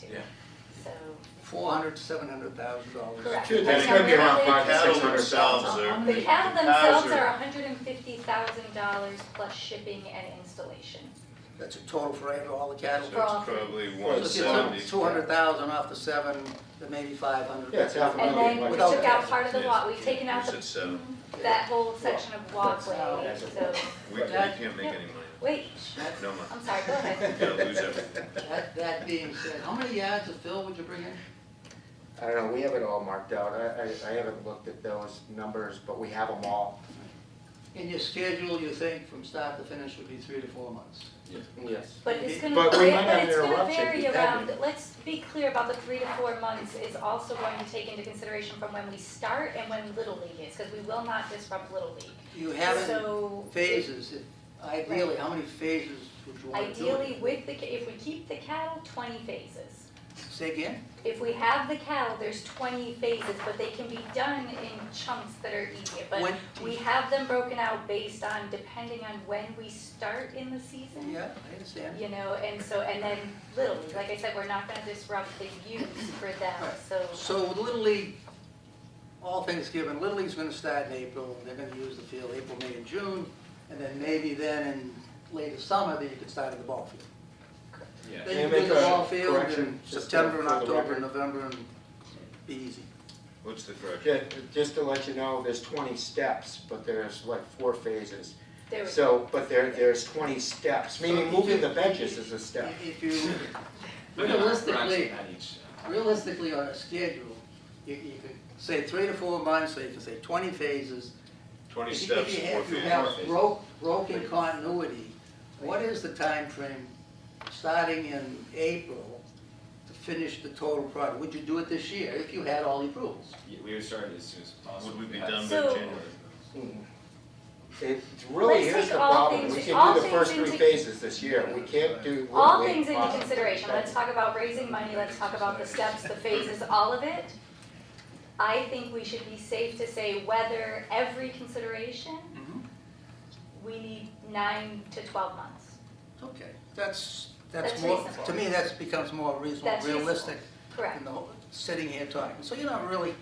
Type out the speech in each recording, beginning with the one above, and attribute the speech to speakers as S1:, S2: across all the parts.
S1: to.
S2: Yeah.
S1: So,
S3: Four hundred, seven hundud thousand dollars.
S1: correct.
S4: Good,
S1: That's
S4: it's
S1: how
S4: gonna be
S1: many-
S4: around five to
S2: Cattle
S4: six hundred
S2: themselves
S4: thousand.
S2: are-
S1: The cattle
S4: Cows
S1: themselves
S4: are-
S1: are hundred and fifty thousand dollars plus shipping and installation.
S3: That's a total for every- all the
S4: So
S3: cattle.
S4: it's
S1: For all three.
S4: probably
S3: So
S4: one
S3: if you
S4: seventy.
S3: Two hundred thousand off the seven, then maybe five hundred.
S4: Yeah, it's half a
S1: And
S4: million.
S1: then we
S3: Without
S1: took out
S3: cattle.
S1: part of the walk, we've taken out
S4: You
S1: the,
S4: said seven.
S1: that whole section of walkway,
S3: That's
S1: so,
S4: We, we can't make any money.
S1: wait, shh,
S4: No money.
S1: I'm sorry, go ahead.
S4: We're gonna lose everything.
S3: That, that being said, how many yards of fill would you bring in?
S5: I don't know, we have it all marked out, I, I, I haven't looked at those numbers, but we have them all.
S3: In your schedule, you think from start to finish would be three to four months.
S5: Yes.
S1: But it's gonna,
S5: But we might
S1: but
S5: have
S1: it's gonna
S5: interruption
S1: vary
S5: if that
S1: around,
S5: happens.
S1: let's be clear about the three to four months is also going to take into consideration from when we start and when Little League is, cause we will not disrupt Little League.
S3: You have
S1: So,
S3: in phases, If- ideally, how many phases would you want to do? it?
S1: ideally with the, ca- if we keep the cattle, twenty phases.
S3: Say again?
S1: If we have the cattle, there's twenty phases, but they can be done in chunks that are easier, but
S3: When-
S1: we have them broken out based on, depending on when we start in the season.
S3: Yeah, I understand.
S1: You know, and so, and then Little League, like I said, we're not gonna disrupt the use for them,
S3: Right.
S1: so,
S3: So with Little League, all things given, Little League's gonna start in April, and they're gonna use the field April, May, and June, and then maybe then in later summer, then you could start at the ball field.
S2: Yeah.
S3: Then you
S5: Can
S3: can
S5: I
S3: do
S5: make
S3: the
S5: a
S3: ball field in
S5: correction just to-
S3: September and
S5: for the
S3: October
S5: record?
S3: and November and be easy.
S4: What's the correction?
S5: Just, just to let you know, there's twenty steps, but there's like four phases.
S1: there we go.
S5: So, but there, there's twenty steps, meaning
S3: So you
S5: moving the
S3: can-
S5: benches is a step.
S3: If you,
S2: No, no, we're actually
S3: Realistically-
S2: at each, uh,
S3: realistically on a schedule, you, you could say three to four months, so you can say twenty phases.
S4: Twenty
S3: If you-
S4: steps,
S3: If you
S4: four
S3: have, you
S4: feet.
S3: have broke, broken continuity, what is the time frame starting in April to finish the total project? Would you do it this year if you had all the approvals?
S2: yeah, we would start as soon as possible.
S4: Would we be
S2: had-
S4: done by
S1: So-
S4: January?
S5: Mm. It really
S1: Let's
S5: is
S1: take
S5: the
S1: all
S5: problem,
S1: things-
S5: we
S1: all
S5: can do the first
S1: things
S5: three
S1: into-
S5: phases this year, we can't do.
S1: All
S5: Little League
S1: things into
S5: possibly.
S1: consideration, let's talk about raising money, let's talk about the steps, the phases, all of it. I think we should be safe to say whether every consideration,
S3: Mm-hmm.
S1: we need nine to twelve months.
S3: Okay, that's, that's
S1: That's
S3: more,
S1: reasonable.
S3: to me, that's becomes more reasonable,
S1: That's reasonable.
S3: realistic
S1: Correct,
S3: in the whole, sitting here talking. So you're not really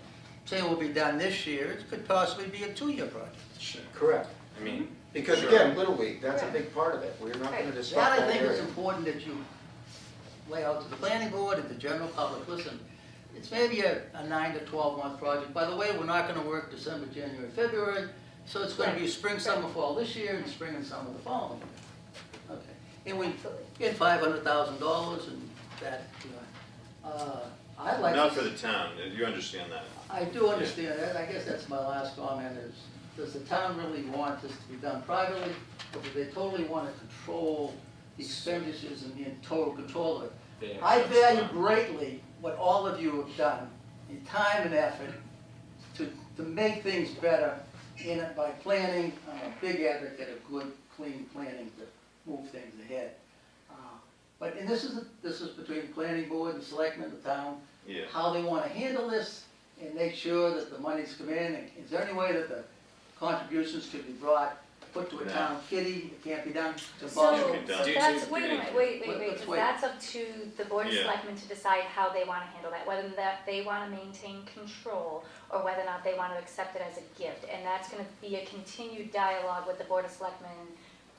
S3: saying we'll be done this year, it could possibly be a two-year project.
S2: Sure,
S5: Correct,
S2: I mean,
S5: because
S2: Sure.
S5: again, Little League, that's a
S1: Right.
S5: big part of it, we're not gonna
S1: Right.
S5: disrupt
S3: That
S5: that
S3: I think
S5: area.
S3: is important that you lay out to the planning board and the general public, listen, it's maybe a, a nine to twelve month project. By the way, we're not gonna work December, January, February, so it's gonna be spring, summer, fall this year, and spring and summer the following year. Okay, and we
S1: absolutely.
S3: get five hundred thousand dollars and that, you know, uh, I like.
S4: Not for the town, you understand that.
S3: I do understand that, I guess that's my last comment is, does the town really want this to be done privately? Or do they totally wanna control the expenditures and be in total control of it?
S2: they have.
S3: I
S2: some
S3: value
S2: time.
S3: greatly what all of you have done, in time and effort, to, to make things better in it by planning. I'm a big advocate of good, clean planning to move things ahead. Uh, But, and this is, this is between the planning board, the selectmen, the town,
S4: Yeah.
S3: how they wanna handle this and make sure that the monies come in. And Is there any way that the contributions could be brought, put to a
S4: No.
S3: town kitty, it can't be done? It's
S1: So,
S3: impossible.
S4: Yeah,
S1: so
S4: we've done-
S1: that's,
S2: Do-
S1: wait a
S2: do-
S1: minute, wait, wait,
S3: Let-
S1: wait,
S3: let's
S1: 'cause
S3: wait.
S1: that's up to the board of
S4: Yeah.
S1: selectmen to decide how they wanna handle that, whether that they wanna maintain control or whether or not they wanna accept it as a gift, and that's gonna be a continued dialogue with the board of selectmen,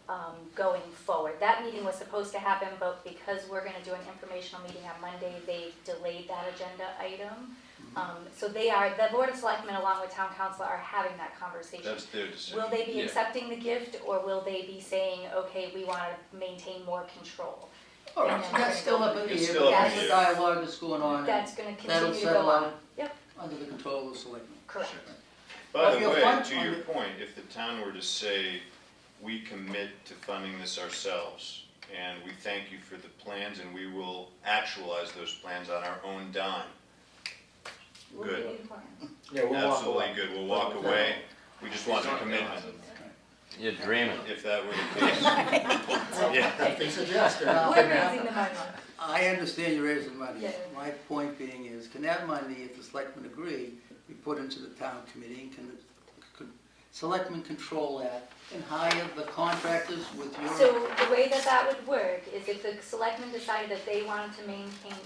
S1: um, going forward. That meeting was supposed to happen, but because we're gonna do an informational meeting on Monday, they delayed that agenda item.
S3: Mm-hmm.
S1: Um, so they are, the board of selectmen along with town council are having that conversation.
S4: That's their decision.
S1: Will they be
S2: Yeah.
S1: accepting the gift, or will they be saying, okay, we wanna maintain more control?
S3: All right, so that's still up in the
S4: It's
S3: air,
S4: still up
S3: but
S4: in
S3: that's
S4: the
S3: the
S4: air.
S3: dialogue that's going on.
S1: That's gonna
S3: That'll
S1: continue to
S3: settle
S1: go on,
S3: out
S1: Yep.
S3: under the control of the selectmen.
S1: correct,
S4: By
S3: Well,
S4: the
S3: your
S4: way,
S3: fund-
S4: to
S3: on
S4: your
S3: the-
S4: point, if the town were to say, we commit to funding this ourselves, and we thank you for the plans, and we will actualize those plans on our own dime.
S1: We'll
S4: Good.
S1: leave it alone.
S5: Yeah, we'll walk
S4: Absolutely
S5: away.
S4: good, we'll walk away, we just want the commitment,
S6: You're dreaming.
S4: if that were the case. Yeah,
S5: Nothing suggested.
S3: Uh,
S1: We're raising the money,
S3: I understand you're raising money.
S1: Yeah.
S3: My point being is, can that money, if the selectmen agree, be put into the town committee? And Can the could selectmen control that and hire the contractors with your?
S1: so the way that that would work is if the selectmen decided that they wanted to maintain